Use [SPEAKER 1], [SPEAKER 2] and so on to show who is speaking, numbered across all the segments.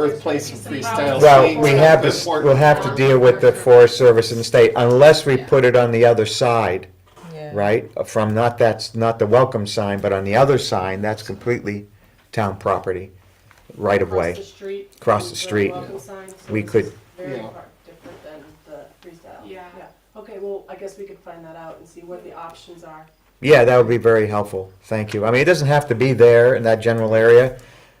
[SPEAKER 1] birthplace of freestyle.
[SPEAKER 2] Well,
[SPEAKER 1] skating.
[SPEAKER 2] we have to, s- we'll have to deal with the Forest Service and the state unless we put it on the other side,
[SPEAKER 3] Yeah.
[SPEAKER 2] right? From not that's, not the welcome sign, but on the other sign, that's completely town property, right of
[SPEAKER 4] Across the
[SPEAKER 2] way.
[SPEAKER 4] street.
[SPEAKER 2] Across
[SPEAKER 4] is
[SPEAKER 2] the street,
[SPEAKER 4] welcome sign, so
[SPEAKER 2] we
[SPEAKER 4] it's
[SPEAKER 2] could-
[SPEAKER 4] Very
[SPEAKER 1] Yeah.
[SPEAKER 4] far different than the freestyle.
[SPEAKER 1] Yeah.
[SPEAKER 4] Okay, well, I guess we could find that out and see what the options are.
[SPEAKER 2] Yeah, that would be very helpful. Thank you. I mean, it doesn't have to be there in that general area.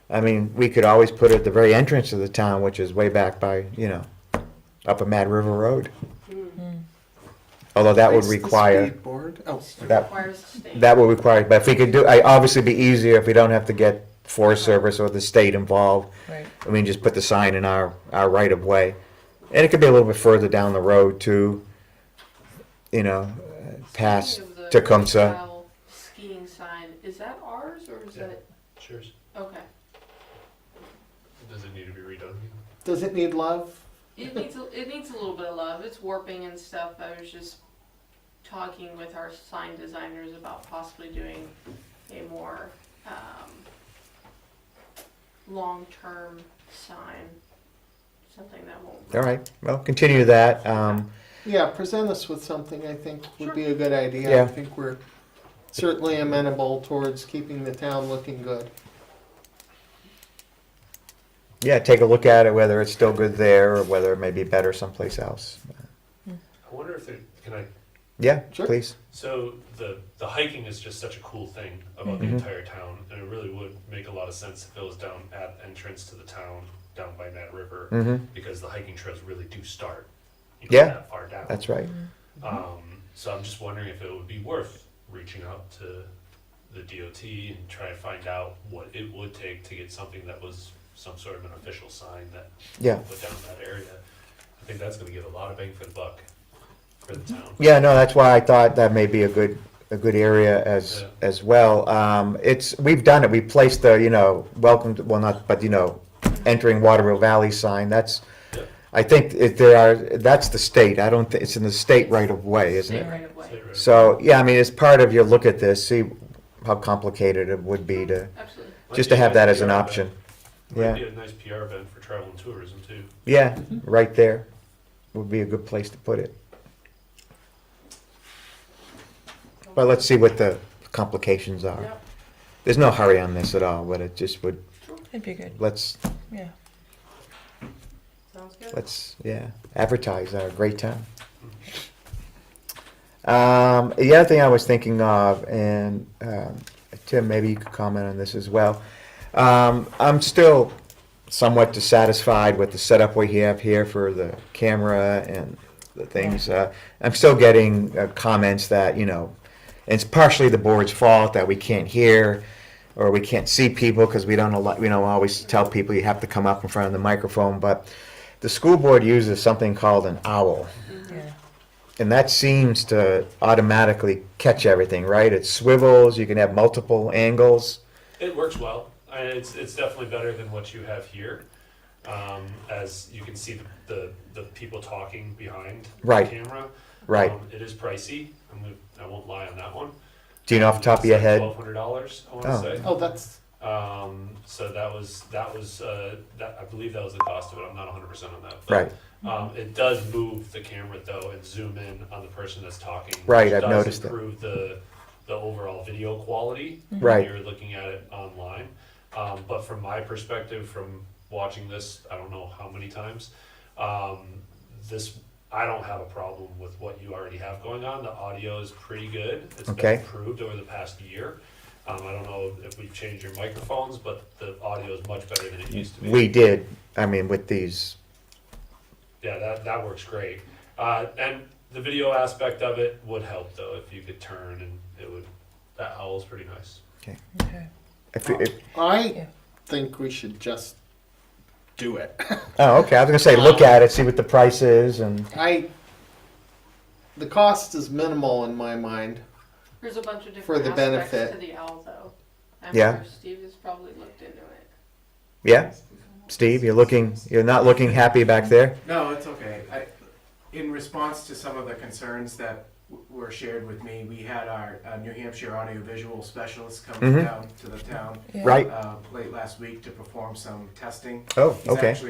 [SPEAKER 2] I mean, we could always put it at the very entrance of the town, which is way back by, you know, up a Mad River Road. Although that would
[SPEAKER 1] Place the
[SPEAKER 2] require,
[SPEAKER 1] skateboard. Oh,
[SPEAKER 2] that,
[SPEAKER 4] Requires state.
[SPEAKER 2] That would require, but if we could do, I, obviously be easier if we don't have to get Forest Service or the state involved.
[SPEAKER 3] Right.
[SPEAKER 2] I mean, just put the sign in our, our right of way. And it could be a little bit further down the road too, you know, uh, past
[SPEAKER 5] Speaking of the
[SPEAKER 2] Tecumseh.
[SPEAKER 5] freestyle Skiing sign, is that ours or is
[SPEAKER 6] Yeah.
[SPEAKER 5] that,
[SPEAKER 6] Cheers.
[SPEAKER 5] okay.
[SPEAKER 6] Does it need to be redone?
[SPEAKER 1] Does it need love?
[SPEAKER 5] It needs, a- it needs a little bit of love, it's warping and stuff, I was just talking with our sign designers about possibly doing a more, um, long-term sign, something that won't.
[SPEAKER 2] All right, well, continue that. Um,
[SPEAKER 1] Yeah, present us with something I think would
[SPEAKER 5] Sure.
[SPEAKER 1] be a good idea. I
[SPEAKER 2] Yeah.
[SPEAKER 1] think we're certainly amenable towards keeping the town looking good.
[SPEAKER 2] yeah, take a look at it, whether it's still good there or whether it may be better someplace else.
[SPEAKER 6] I wonder if there, can I,
[SPEAKER 2] Yeah,
[SPEAKER 1] Sure.
[SPEAKER 2] please.
[SPEAKER 6] so the, the hiking is just such a cool thing about
[SPEAKER 2] Mm-hmm.
[SPEAKER 6] the entire town. And it really would make a lot of sense if it was down at entrance to the town, down by that river.
[SPEAKER 2] hmm
[SPEAKER 6] Because the hiking trails really do start, you know,
[SPEAKER 2] Yeah,
[SPEAKER 6] that far down.
[SPEAKER 2] that's right.
[SPEAKER 6] Um, so I'm just wondering if it would be worth reaching out to the DOT and try to find out what it would take to get something that was some sort of an official sign that
[SPEAKER 2] Yeah.
[SPEAKER 6] put down in that area. I think that's gonna give a lot of bang for the buck for the town.
[SPEAKER 2] Yeah, no, that's why I thought that may be a good, a good area as,
[SPEAKER 6] Yeah.
[SPEAKER 2] as well. Um, it's, we've done it, we placed the, you know, welcome, to- well, not, but you know, entering Waterville Valley sign, that's,
[SPEAKER 6] Yeah.
[SPEAKER 2] I think if there are, that's the state, I don't, thi- it's in the state right of way, isn't
[SPEAKER 5] State
[SPEAKER 2] it?
[SPEAKER 5] right of way,
[SPEAKER 6] State road.
[SPEAKER 2] So, yeah, I mean, it's part of your look at this, see how complicated it would be to,
[SPEAKER 5] absolutely.
[SPEAKER 2] just to have that as an option.
[SPEAKER 6] Might
[SPEAKER 2] Yeah,
[SPEAKER 6] be a nice PR event for travel and tourism too.
[SPEAKER 2] yeah, right there would be a good place to put it. But let's see what the complications are.
[SPEAKER 5] Yep.
[SPEAKER 2] There's no hurry on this at all, but it just would,
[SPEAKER 3] That'd be good.
[SPEAKER 2] let's,
[SPEAKER 3] Yeah.
[SPEAKER 4] Sounds good.
[SPEAKER 2] let's, yeah, advertise our great town. Um, the other thing I was thinking of, and, um, Tim, maybe you could comment on this as well. Um, I'm still somewhat dissatisfied with the setup we have here for the camera and the things. Uh, I'm still getting uh, comments that, you know, it's partially the board's fault that we can't hear or we can't see people because we don't allow, we don't always tell people you have to come up in front of the microphone. But the school board uses something called an owl.
[SPEAKER 3] Yeah.
[SPEAKER 2] And that seems to automatically catch everything, right? It swivels, you can have multiple angles.
[SPEAKER 6] It works well. I- It's, it's definitely better than what you have here. Um, as you can see the, the, the people talking behind
[SPEAKER 2] Right.
[SPEAKER 6] the camera.
[SPEAKER 2] Right.
[SPEAKER 6] Um, it is pricey. I'm gonna, I won't lie on that one.
[SPEAKER 2] Do you know off the top of your head?
[SPEAKER 6] Twelve hundred dollars, I want to
[SPEAKER 2] Oh.
[SPEAKER 6] say.
[SPEAKER 1] Oh, that's
[SPEAKER 6] Um, so that was that was uh, that I believe that was the cost of it. I'm not 100 percent on that. but,
[SPEAKER 2] Right.
[SPEAKER 6] Um, it does move the camera though and zoom in on the person that's talking.
[SPEAKER 2] Right,
[SPEAKER 6] which
[SPEAKER 2] I've
[SPEAKER 6] does
[SPEAKER 2] noticed that.
[SPEAKER 6] improve the the overall video quality.
[SPEAKER 2] Right.
[SPEAKER 6] When you're looking at it online, um, but from my perspective, from watching this, I don't know how many times. Um, this I don't have a problem with what you already have going on. The audio is pretty good. It's
[SPEAKER 2] Okay.
[SPEAKER 6] been improved over the past year. Um, I don't know if we've changed your microphones, but the audio is much better than it used to be.
[SPEAKER 2] We did, I mean, with these,
[SPEAKER 6] yeah, that that works great. Uh, and the video aspect of it would help though if you could turn and it would. That owl's pretty nice.
[SPEAKER 3] Okay.
[SPEAKER 2] if, if,
[SPEAKER 1] I
[SPEAKER 3] Yeah.
[SPEAKER 1] think we should just do it.
[SPEAKER 2] oh, okay, I was gonna say, look at it, see what the price is and,
[SPEAKER 1] I the cost is minimal in my mind.
[SPEAKER 5] There's a bunch of
[SPEAKER 1] For
[SPEAKER 5] different
[SPEAKER 1] the
[SPEAKER 5] aspects to
[SPEAKER 1] benefit.
[SPEAKER 5] the owl though. I'm
[SPEAKER 2] Yeah.
[SPEAKER 5] sure Steve has probably looked into it.
[SPEAKER 2] yeah? Steve, you're looking, you're not looking happy back there?
[SPEAKER 7] No, it's okay. I, in response to some of the concerns that
[SPEAKER 3] w- were shared with me, we had our uh, New Hampshire audiovisual specialists come
[SPEAKER 2] Mhm.
[SPEAKER 3] down to the town
[SPEAKER 2] right?
[SPEAKER 3] uh, late last week to perform some testing.
[SPEAKER 2] Oh,
[SPEAKER 3] He's
[SPEAKER 2] okay.
[SPEAKER 3] actually